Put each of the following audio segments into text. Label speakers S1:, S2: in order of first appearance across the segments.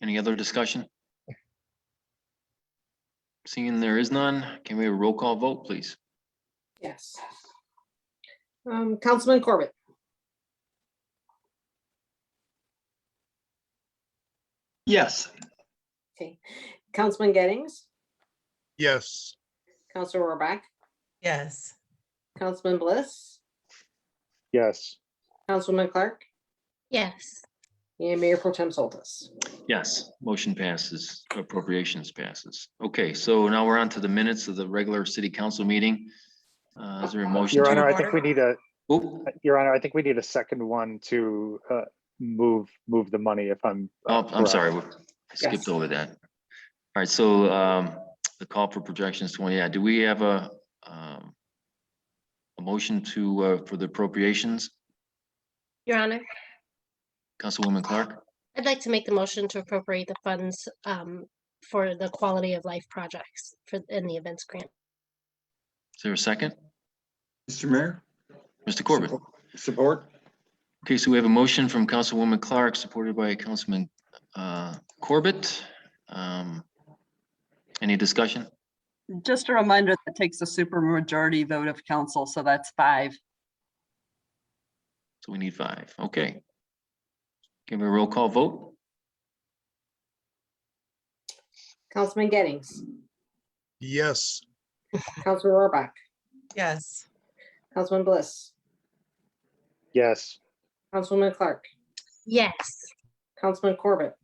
S1: Any other discussion? Seeing there is none, can we have a roll call vote, please?
S2: Yes. Um, Councilman Corbett,
S3: Yes.
S2: okay. Councilman Gettings,
S4: Yes,
S2: Councilor Rohrbach,
S5: Yes,
S2: Councilman Bliss,
S6: yes,
S2: Councilman Clark,
S7: yes,
S2: and Mayor Pro Tem Soltis.
S1: Yes, motion passes, appropriations passes. Okay, so now we're on to the minutes of the regular city council meeting. Uh, Is there a motion?
S6: Your
S1: to-
S6: Honor, I think we need a,
S1: Oh,
S6: Your Honor, I think we need a second one to uh, move, move the money if I'm. uh,
S1: oh, I'm sorry,
S6: correct.
S1: we skipped
S2: Yes.
S1: over that. All right, so um, the call for projections twenty, yeah, do we have a um, a motion to, uh, for the appropriations?
S7: Your Honor.
S1: Councilwoman Clark,
S7: I'd like to make the motion to appropriate the funds um, for the quality of life projects for, in the events grant.
S1: is there a second?
S3: Mr. Mayor?
S1: Mr. Corbett?
S3: Support?
S1: Okay, so we have a motion from Councilwoman Clark, supported by Councilman uh, Corbett. Um, Any discussion?
S8: Just a reminder, that takes a supermajority vote of council, so that's five.
S1: So we need five, okay. Give a roll call vote?
S2: Councilman Gettings,
S4: yes,
S2: Councilor Rohrbach,
S5: yes,
S2: Councilman Bliss,
S6: Yes,
S2: Councilwoman Clark,
S7: Yes,
S2: Councilman Corbett,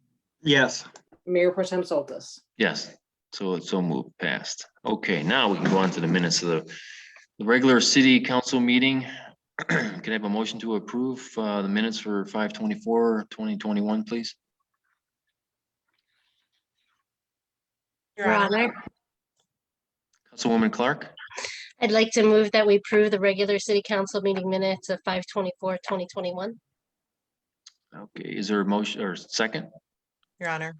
S3: Yes.
S2: Mayor Pro Tem Soltis.
S1: Yes, so it's so moved past. Okay, now we can go on to the minutes of the the regular city council meeting. Can I have a motion to approve uh, the minutes for 2021, please?
S7: Your Honor.
S1: Councilwoman Clark,
S7: I'd like to move that we approve the regular city council meeting minutes of 2021.
S1: okay, is there a motion or second?
S5: Your Honor,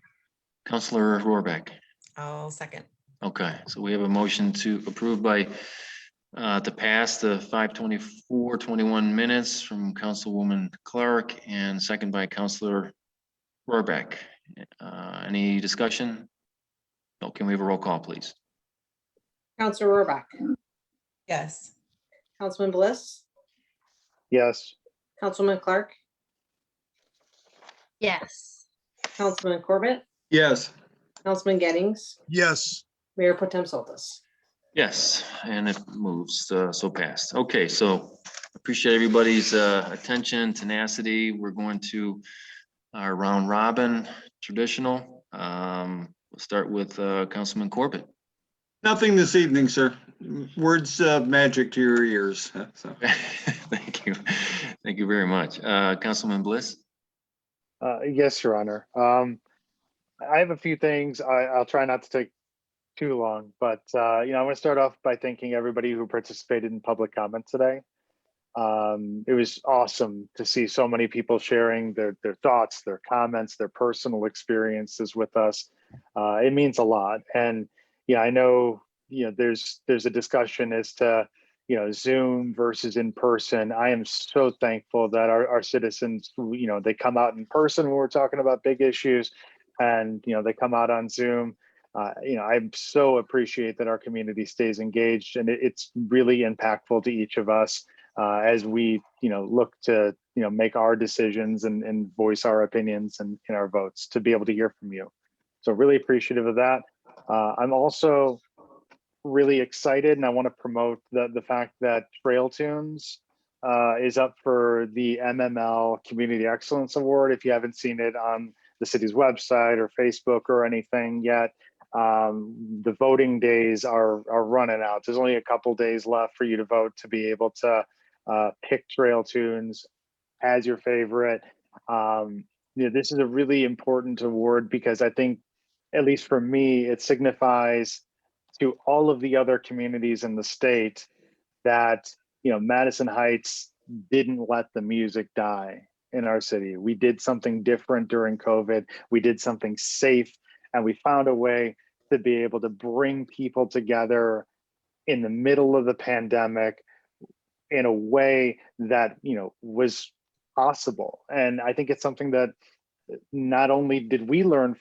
S1: Councilor Rohrbach?
S5: I'll second.
S1: Okay, so we have a motion to approve by, uh, to pass the five twenty-four, twenty-one minutes from Councilwoman Clark and second by Councilor Rohrbach. Uh, any discussion? No, can we have a roll call, please?
S2: Councilor Rohrbach,
S5: Yes,
S2: Councilman Bliss,
S6: yes,
S2: Councilman Clark,
S7: Yes,
S2: Councilman Corbett,
S3: Yes.
S2: Councilman Gettings,
S4: yes,
S2: Mayor Pro Tem Soltis.
S1: Yes, and it moves uh, so fast. Okay, so appreciate everybody's uh, attention, tenacity. We're going to our round robin traditional. Um, We'll start with uh, Councilman Corbett.
S3: Nothing this evening, sir. Words uh, magic to your ears. so.
S1: Thank you. Thank you very much. Uh, Councilman Bliss?
S6: uh, yes, Your Honor. Um, I have a few things. I, I'll try not to take too long, but, uh, you know, I want to start off by thanking everybody who participated in public comment today. Um, it was awesome to see so many people sharing their, their thoughts, their comments, their personal experiences with us. Uh, it means a lot. And, yeah, I know, you know, there's, there's a discussion as to, you know, Zoom versus in person. I am so thankful that our, our citizens, who, you know, they come out in person when we're talking about big issues and, you know, they come out on Zoom. Uh, you know, I'm so appreciate that our community stays engaged and it- it's really impactful to each of us uh, as we, you know, look to, you know, make our decisions and, and voice our opinions and in our votes to be able to hear from you. So really appreciative of that. Uh, I'm also really excited and I want to promote the, the fact that Trail Tunes uh, is up for the MML Community Excellence Award. If you haven't seen it on the city's website or Facebook or anything yet, um, the voting days are, are running out. There's only a couple days left for you to vote to be able to uh, pick Trail Tunes as your favorite. Um, you know, this is a really important award because I think, at least for me, it signifies to all of the other communities in the state that you know Madison Heights didn't let the music die in our city. We did something different during COVID. We did something safe and we found a way to be able to bring people together in the middle of the pandemic in a way that, you know, was possible. And I think it's something that not only did we learn